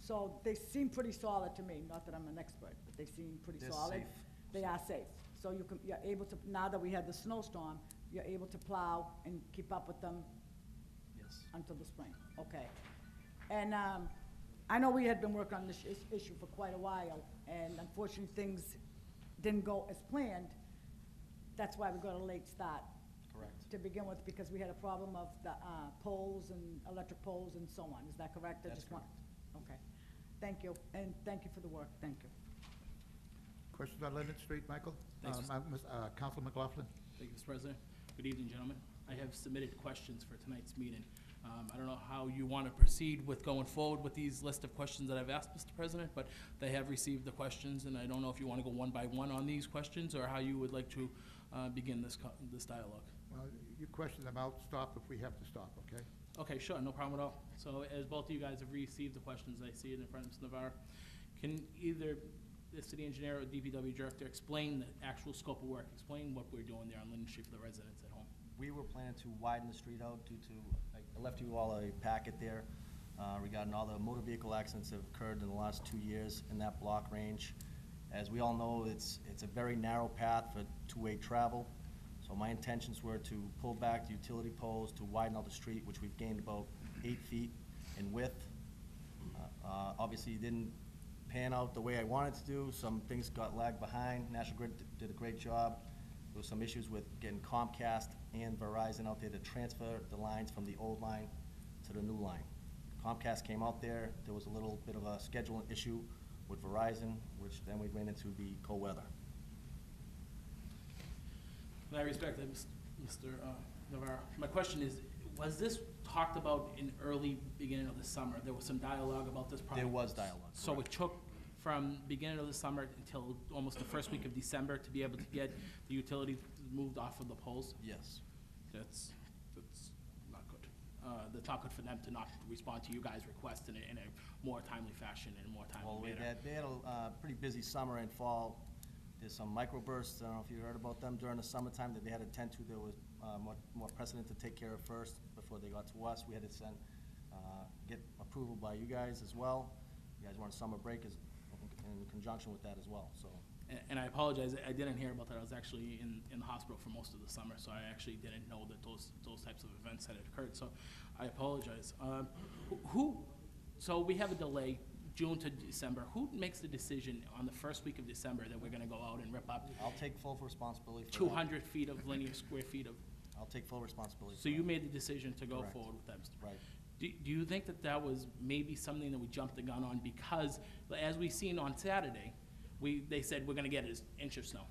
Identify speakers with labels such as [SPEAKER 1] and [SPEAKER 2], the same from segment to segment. [SPEAKER 1] So they seem pretty solid to me, not that I'm an expert, but they seem pretty
[SPEAKER 2] They're
[SPEAKER 1] solid.
[SPEAKER 2] safe.
[SPEAKER 1] They are safe. So you can, you're able to, now that we had the snowstorm, you're able to plow and keep up with them
[SPEAKER 2] Yes.
[SPEAKER 1] until the spring, okay. And um, I know we had been working on this is- issue for quite a while, and unfortunately, things didn't go as planned. That's why we got a late start
[SPEAKER 2] Correct.
[SPEAKER 1] to begin with, because we had a problem of the uh, poles and electric poles and so on. Is that correct? I
[SPEAKER 2] That's
[SPEAKER 1] just want- Okay. Thank you, and thank you for the work, thank you.
[SPEAKER 3] Questions on Leonard Street, Michael?
[SPEAKER 4] Thanks,
[SPEAKER 3] Uh,
[SPEAKER 4] Mr.
[SPEAKER 3] Ma- Ms. uh, Council McLaughlin?
[SPEAKER 4] Thank you, Mr. President. Good evening, gentlemen. I have submitted questions for tonight's meeting. Um, I don't know how you want to proceed with going forward with these list of questions that I've asked, Mr. President, but they have received the questions, and I don't know if you want to go one by one on these questions or how you would like to uh, begin this co- this dialogue.
[SPEAKER 3] Well, you question them, I'll stop if we have to stop, okay?
[SPEAKER 4] Okay, sure, no problem at all. So as both of you guys have received the questions, I see it in front of Ms. Navarro. Can either the city engineer or DPW director explain the actual scope of work, explain what we're doing there on Linden Street for the residents at home?
[SPEAKER 2] We were planning to widen the street out due to, I left you all a packet there uh, regarding all the motor vehicle accidents that have occurred in the last two years in that block range. As we all know, it's, it's a very narrow path for two-way travel. So my intentions were to pull back the utility poles to widen out the street, which we've gained about eight feet in width. Uh, uh, Obviously, it didn't pan out the way I wanted to do. Some things got lagged behind. National Grid d- did a great job. There was some issues with getting Comcast and Verizon out there to transfer the lines from the old line to the new line. Comcast came out there. There was a little bit of a scheduling issue with Verizon, which then we ran into the cold weather.
[SPEAKER 4] And I respect that, Mr. uh, Navarro. My question is, was this talked about in early beginning of the summer? There was some dialogue about this project?
[SPEAKER 2] There was dialogue,
[SPEAKER 4] So it took from beginning of the summer until almost the first week of December to be able to get the utilities moved off of the poles?
[SPEAKER 2] Yes.
[SPEAKER 4] That's, that's not good. Uh, That's not good for them to not respond to you guys' requests in a, in a more timely fashion and more
[SPEAKER 2] Well, we
[SPEAKER 4] timely manner.
[SPEAKER 2] had, they had a uh, pretty busy summer and fall. There's some microbursts, I don't know if you heard about them during the summertime, that they had to tend to, there was uh, more more precedent to take care of first before they got to us. We had to send, uh, get approval by you guys as well. You guys were on summer break as- in conjunction with that as well, so.
[SPEAKER 4] And- And I apologize, I didn't hear about that. I was actually in, in the hospital for most of the summer, so I actually didn't know that those, those types of events had occurred, so I apologize. Um, wh- Who, so we have a delay, June to December. Who makes the decision on the first week of December that we're gonna go out and rip up
[SPEAKER 2] I'll take full responsibility for that.
[SPEAKER 4] two hundred feet of linear square feet of,
[SPEAKER 2] I'll take full responsibility.
[SPEAKER 4] so
[SPEAKER 2] for
[SPEAKER 4] you
[SPEAKER 2] that.
[SPEAKER 4] made the decision to go
[SPEAKER 2] Correct.
[SPEAKER 4] forward with that, Mr.
[SPEAKER 2] Right.
[SPEAKER 4] Do, do you think that that was maybe something that we jumped the gun on because, as we seen on Saturday, we, they said we're gonna get an inch of snow.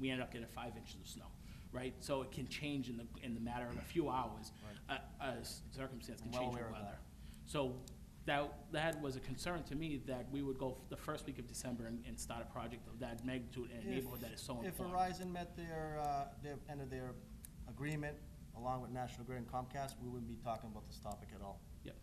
[SPEAKER 4] We ended up getting five inches of snow, right? So it can change in the, in the matter of a few hours. A, a circumstance can
[SPEAKER 2] I'm well
[SPEAKER 4] change the
[SPEAKER 2] aware of that.
[SPEAKER 4] weather. So that, that was a concern to me that we would go f- the first week of December and, and start a project of that magnitude in a neighborhood that is so
[SPEAKER 2] If
[SPEAKER 4] important.
[SPEAKER 2] Verizon met their, uh, their, end of their agreement along with National Grid and Comcast, we wouldn't be talking about this topic at all.
[SPEAKER 4] Yep.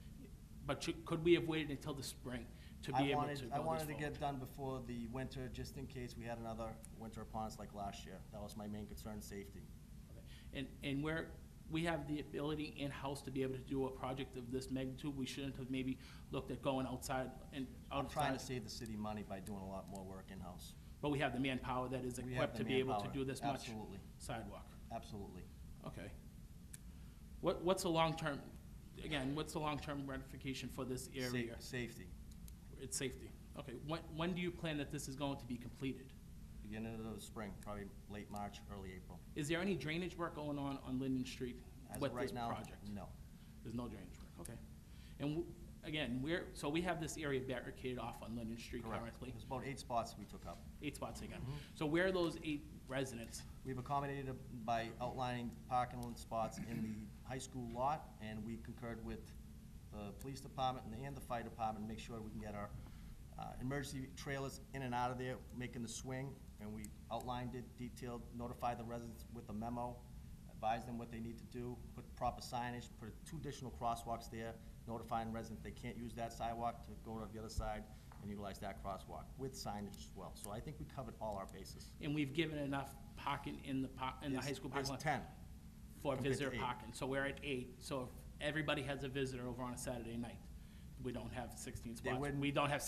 [SPEAKER 4] But should- could we have waited until the spring to
[SPEAKER 2] I
[SPEAKER 4] be able to go
[SPEAKER 2] wanted-
[SPEAKER 4] this
[SPEAKER 2] I wanted to
[SPEAKER 4] forward?
[SPEAKER 2] get done before the winter, just in case we had another winter upon us like last year. That was my main concern, safety.
[SPEAKER 4] Okay. And, and where we have the ability in-house to be able to do a project of this magnitude, we shouldn't have maybe looked at going outside and
[SPEAKER 2] I'm trying
[SPEAKER 4] outside.
[SPEAKER 2] to save the city money by doing a lot more work in-house.
[SPEAKER 4] But we have the manpower that is
[SPEAKER 2] We have
[SPEAKER 4] equipped
[SPEAKER 2] the
[SPEAKER 4] to be able to
[SPEAKER 2] manpower.
[SPEAKER 4] do this much
[SPEAKER 2] Absolutely.
[SPEAKER 4] sidewalk.
[SPEAKER 2] Absolutely.
[SPEAKER 4] Okay. What, what's the long-term, again, what's the long-term ratification for this
[SPEAKER 2] Sa-
[SPEAKER 4] area?
[SPEAKER 2] Safety.
[SPEAKER 4] It's safety. Okay, when, when do you plan that this is going to be completed?
[SPEAKER 2] Beginning of the spring, probably late March, early April.
[SPEAKER 4] Is there any drainage work going on on Linden Street
[SPEAKER 2] As
[SPEAKER 4] with
[SPEAKER 2] of
[SPEAKER 4] this
[SPEAKER 2] right now,
[SPEAKER 4] project?
[SPEAKER 2] no.
[SPEAKER 4] There's no drainage work, okay. And w- again, we're, so we have this area barricaded off on Linden Street
[SPEAKER 2] Correct. Mm-hmm.
[SPEAKER 4] currently,
[SPEAKER 2] There's about eight spots we took up.
[SPEAKER 4] eight spots again. So where are those eight residents?
[SPEAKER 2] We've accommodated it by outlining parking lot spots in the high school lot, and we concurred with the police department and the- and the fire department, to make sure we can get our uh, emergency trailers in and out of there, making the swing, and we outlined it, detailed, notified the residents with a memo, advised them what they need to do, put proper signage, put two additional crosswalks there, notifying residents they can't use that sidewalk to go to the other side and utilize that crosswalk with signage as well. So I think we covered all our bases.
[SPEAKER 4] And we've given enough parking in the po in the high
[SPEAKER 2] There's-
[SPEAKER 4] school parking lot.
[SPEAKER 2] There's ten.
[SPEAKER 4] For
[SPEAKER 2] compared to
[SPEAKER 4] visitor
[SPEAKER 2] eight.
[SPEAKER 4] parking, so we're at eight, so if everybody has a visitor over on a Saturday night, we don't have sixteen
[SPEAKER 2] They
[SPEAKER 4] spots.
[SPEAKER 2] wouldn't-
[SPEAKER 4] We don't have